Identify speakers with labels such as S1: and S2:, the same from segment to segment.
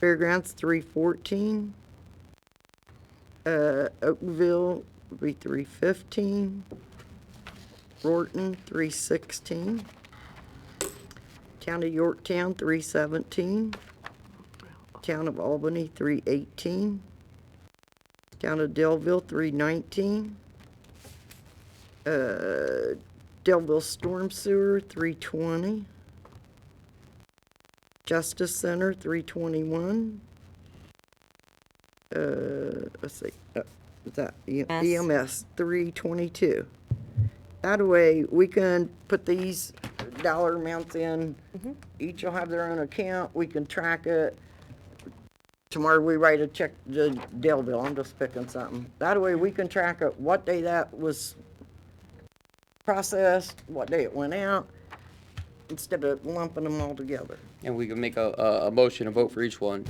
S1: Fairgrounds, three fourteen. Uh, Oakville would be three fifteen. Rorton, three sixteen. Town of Yorktown, three seventeen. Town of Albany, three eighteen. Town of Delville, three nineteen. Uh, Delville Storm Sewer, three twenty. Justice Center, three twenty-one. Uh, let's see, uh, was that E-
S2: Yes.
S1: EMS, three twenty-two. That way, we can put these dollar amounts in, each will have their own account, we can track it. Tomorrow, we write a check to Delville, I'm just picking something. That way, we can track it, what day that was processed, what day it went out, instead of lumping them all together.
S3: And we can make a, a, a motion and vote for each one.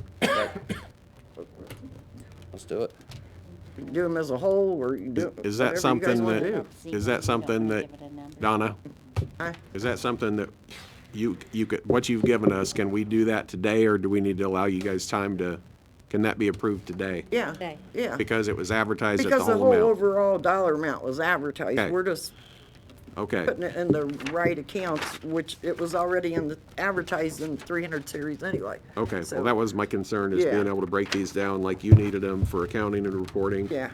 S3: Let's do it.
S1: You can Do them as a whole, or you do. whatever
S4: Is that
S1: you guys
S4: something
S1: wanna
S4: that,
S1: do.
S4: is that something that, Donna,
S1: Huh?
S4: is that something that you, you could, what you've given us, can we do that today, or do we need to allow you guys time to, can that be approved today?
S1: Yeah,
S2: Okay.
S1: yeah.
S4: Because it was advertised at the
S1: Because the
S4: whole
S1: whole
S4: amount?
S1: overall dollar amount was advertised,
S4: Okay.
S1: we're just
S4: Okay,
S1: putting it in the right accounts, which it was already in the, advertised in three hundred series anyway.
S4: okay,
S1: So,
S4: well, that was my concern, is being
S1: Yeah.
S4: able to break these down like you needed them for accounting and reporting.
S1: Yeah,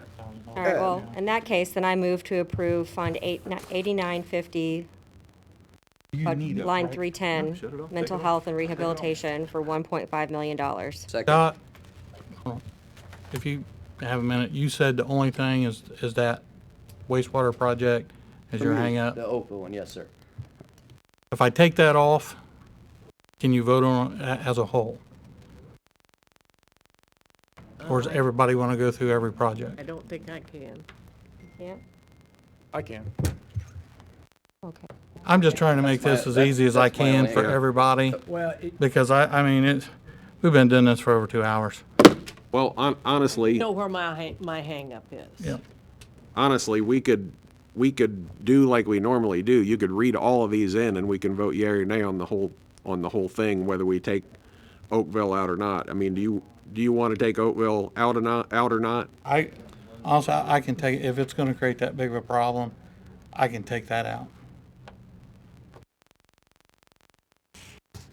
S2: All right, well, in that case, then I move to approve Fund eight ni- 8950, uh, line 310, mental health and rehabilitation for $1.5 million.
S3: Second.
S5: Scott, if you have a minute, you said the only thing is, is that wastewater project is your
S3: The
S5: hangup.
S3: open one, yes, sir.
S5: If I take that off, can you vote on it a- as a whole? Or does everybody want to go through every project?
S6: I don't think I can.
S2: Yeah,
S7: I can.
S2: okay.
S5: I'm just trying to make this
S3: my-
S5: as easy as I
S3: that's my
S5: can
S3: only-
S5: for
S3: Yeah.
S5: everybody,
S7: Uh, Well, it-
S5: because I, I mean, it's, we've been doing this for over two hours.
S4: Well, hon- honestly.
S6: Know where my, hang- my hangup is.
S5: Yeah.
S4: honestly, we could, we could do like we normally do. You could read all of these in and we can vote yea or nay on the whole, on the whole thing, whether we take Oakville out or not. I mean, do you, do you want to take Oakville out or not, out or not?
S5: I, also, I can take, if it's gonna create that big of a problem, I can take that out.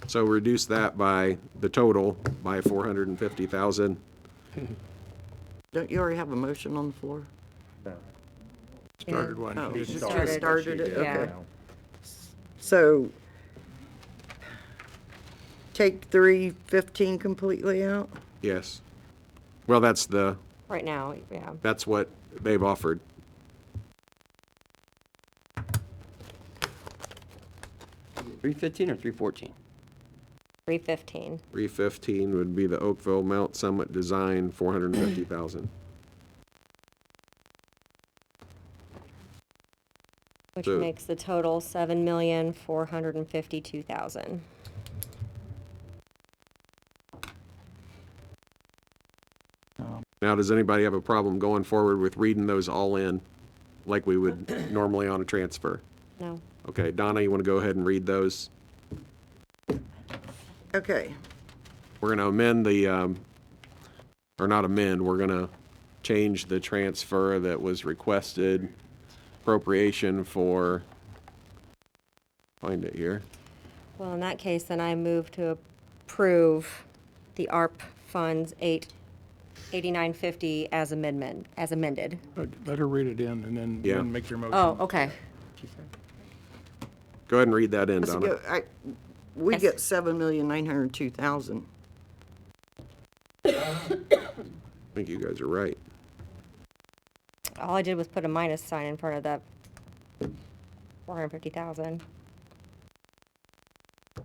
S4: So reduce that by the total by four hundred and fifty thousand.
S1: don't you already have a motion on the floor?
S2: Started
S1: Oh, you just
S2: started.
S1: started it,
S2: Yeah.
S1: okay. So take three fifteen completely out?
S4: Yes. Well, that's the,
S2: Right now, yeah.
S4: that's what they've offered.
S3: Three fifteen or three fourteen?
S2: 315.
S4: Three fifteen would be the Oakville Mount Summit Design, four hundred and fifty thousand.
S2: Which
S4: So-
S2: makes the total seven million, four hundred and fifty-two thousand.
S4: Now, does anybody have a problem going forward with reading those all in like we would normally on a transfer?
S2: No,
S4: Okay, Donna, you want to go ahead and read those?
S1: Okay,
S4: We're going to amend the, um, or not amend, we're going to change the transfer that was requested appropriation for, find it here.
S2: well, in that case, then I move to approve the ARP funds eight, eighty-nine fifty as amendment, as amended.
S7: Let let her read it in and then,
S4: Yeah.
S7: then make your motion.
S2: Oh, okay.
S4: Go ahead and read that in,
S1: let's
S4: Donna.
S1: go, I, we
S2: Yes.
S1: get seven million nine hundred two thousand.
S4: I think you guys are right.
S2: All I did was put a minus sign in front of that four hundred and fifty thousand.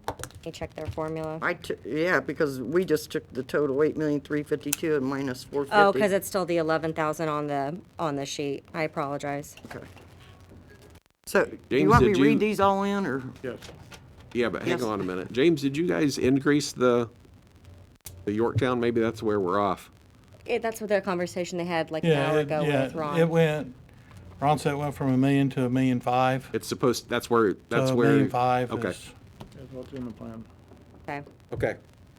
S2: Let me check their formula.
S1: I took, yeah, because we just took the total eight million three fifty-two and minus four fifty.
S2: Oh, because it's still the eleven thousand on the, on the sheet. I apologize.
S1: So, do you
S4: James,
S1: want me
S4: did
S1: to read
S4: you-
S1: these all in, or?
S7: Yes.
S4: Yeah, but hang
S1: Yes.
S4: on a minute. James, did you guys increase the, the Yorktown? Maybe that's where we're off.
S2: It, that's what their conversation they had like an
S5: Yeah,
S2: hour
S5: it-
S2: ago
S5: yeah,
S2: with Ron.
S5: It went, Ron said it went from a million to a million five.
S4: It's supposed, that's where,
S5: So
S4: that's
S5: a
S4: where.
S5: million Uh, five
S4: Okay,
S5: is-
S7: That's what's in the plan.
S2: Okay.
S4: okay.